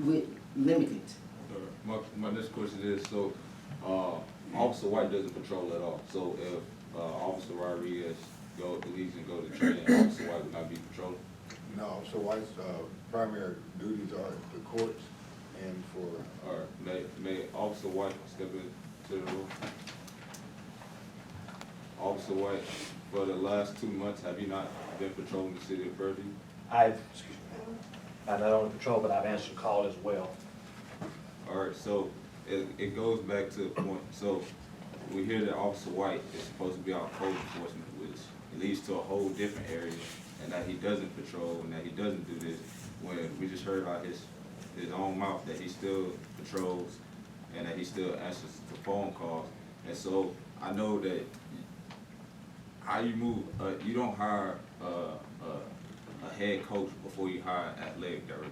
with limited. My, my next question is, so, uh, Officer White doesn't patrol at all, so if, uh, Officer Rodriguez go, leaves and go to training, Officer White would not be patrolling? No, so White's, uh, primary duties are the courts and for, Or may, may Officer White step into the room? Officer White, for the last two months, have you not been patrolling the city of Fairview? I've, excuse me, I not only patrol, but I've answered call as well. All right, so it, it goes back to the point, so we hear that Officer White is supposed to be our code enforcement, which leads to a whole different area, and that he doesn't patrol, and that he doesn't do this, when we just heard out his, his own mouth that he still patrols, and that he still answers the phone calls, and so I know that how you move, uh, you don't hire, uh, uh, a head coach before you hire an athletic director.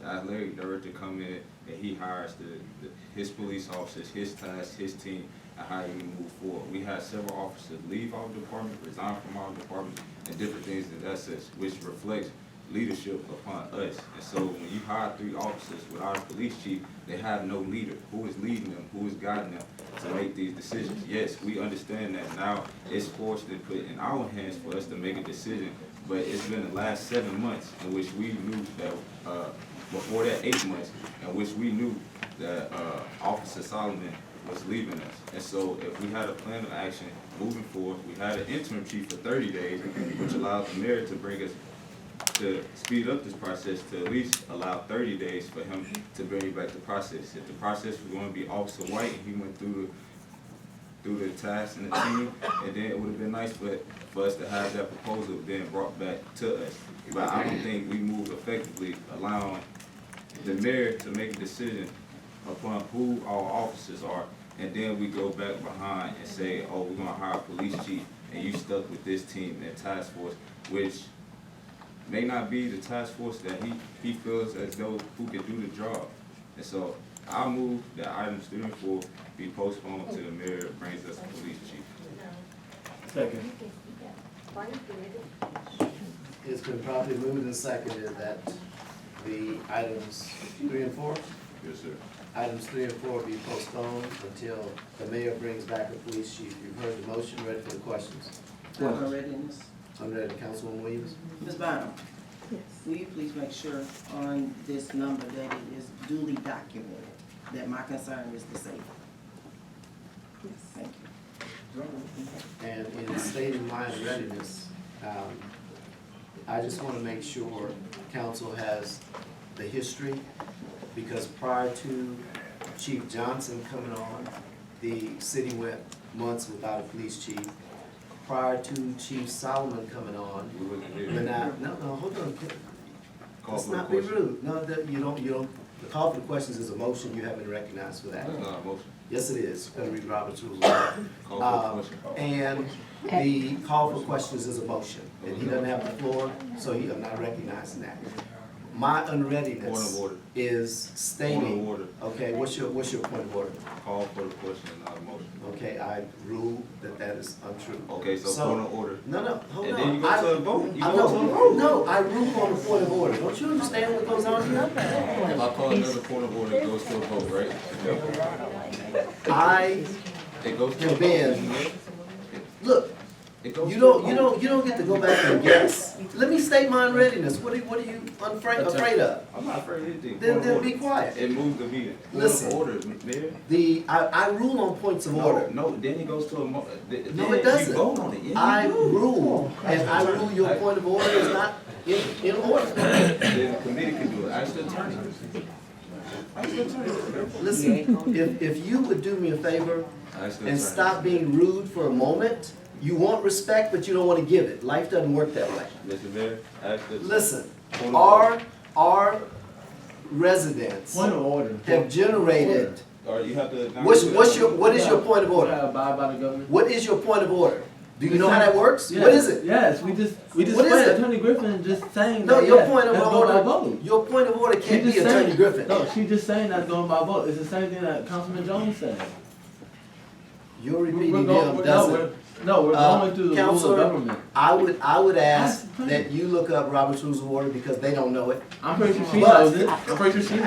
The athletic director come in and he hires the, the, his police officers, his task, his team, and how you move forward. We had several officers leave our department, resign from our department, and different things in that sense, which reflects leadership upon us. And so when you hire three officers without a police chief, they have no leader. Who is leading them? Who is guiding them to make these decisions? Yes, we understand that now it's forced and put in our hands for us to make a decision. But it's been the last seven months in which we knew that, uh, before that eight months, in which we knew that, uh, Officer Solomon was leaving us. And so if we had a plan of action moving forward, we had an interim chief for thirty days, which allowed the mayor to bring us to speed up this process to at least allow thirty days for him to bring back the process. If the process was gonna be Officer White, and he went through the, through the task and the team, and then it would've been nice for, for us to have that proposal then brought back to us. But I don't think we moved effectively allowing the mayor to make a decision upon who our officers are, and then we go back behind and say, oh, we're gonna hire a police chief, and you stuck with this team and task force, which may not be the task force that he, he feels as though who can do the job. And so I move that item student four be postponed to the mayor brings us a police chief. Second. Frank did it. It's been properly moved and seconded that the items three and four, Yes, sir. items three and four be postponed until the mayor brings back a police chief. You've heard the motion, ready for the questions. I'm already in this. I'm ready, Councilwoman Williams. Ms. Bynum? Will you please make sure on this number that it is duly documented that my concern is disabled? Yes. Thank you. And in state of mind readiness, um, I just wanna make sure council has the history, because prior to Chief Johnson coming on, the city went months without a police chief. Prior to Chief Solomon coming on, We wasn't then here. I, no, no, hold on, Call uh, let's for the not be question. rude, no, that, you don't, you don't, the call for the questions is a motion, you haven't recognized for that. That's not a motion. Yes, it is, gonna read Robert's rules. of Order. Call Um, for the question. And the call for questions is a motion, and he doesn't have the floor, so he, I'm not recognizing that. My Point of unreadiness order, is point of stating, order, okay, what's your, what's your point of order? call for the question, not a motion. Okay, I rule that that is untrue. Okay, so So- point of order. No, no, hold Oh. And on. then you I- go to a vote, you I go to a know. vote. No, I rule on the point of order, don't you understand what goes on here? If I call another point of order, it goes to a vote, right? I It goes to a have vote. been, look, It goes to a You don't, you vote. don't, you don't get to go back and guess. Let me state my unreadiness. What are, what are you unfra- afraid of? I'm not afraid of anything. Then, Point of then be order. quiet. It moved the meeting. Point Listen. of order, mayor. The, I, I rule on points of No, order. no, then it goes to a mo- th- No, then it doesn't. You vote on it, yeah, I you do. rule, and I rule your point of order is not in, in order. Then the committee can do it, ask the attorney. Ask the attorney. Listen, if, if you would do me a favor Ask the attorney. and stop being rude for a moment, you want respect, but you don't want to give it. Life doesn't work that way. Mr. Mayor, ask the. Listen, Point of order. our, our residents Point of order. have generated, Or you have to. what's, what's your, what is your point of order? Uh, Abide by the government. What is your point of order? Do you know how that works? Yes, What is it? Yes, we just, we just What is read it? Attorney Griffin just saying No, that, your yes, point of that's going by order, vote. your point of order She can't be just saying- Attorney Griffin. No, she just saying that's going by vote. It's the same thing that Councilman Jones said. You're We're- we're repeating him, go- we're- no, doesn't. we're- No, we're Uh, going through the rules of Counselor- government. I would, I would ask That's fine. that you look up Robert's Rules of Order because they don't know it. I'm pretty sure she But- knows it. I'm pretty sure she knows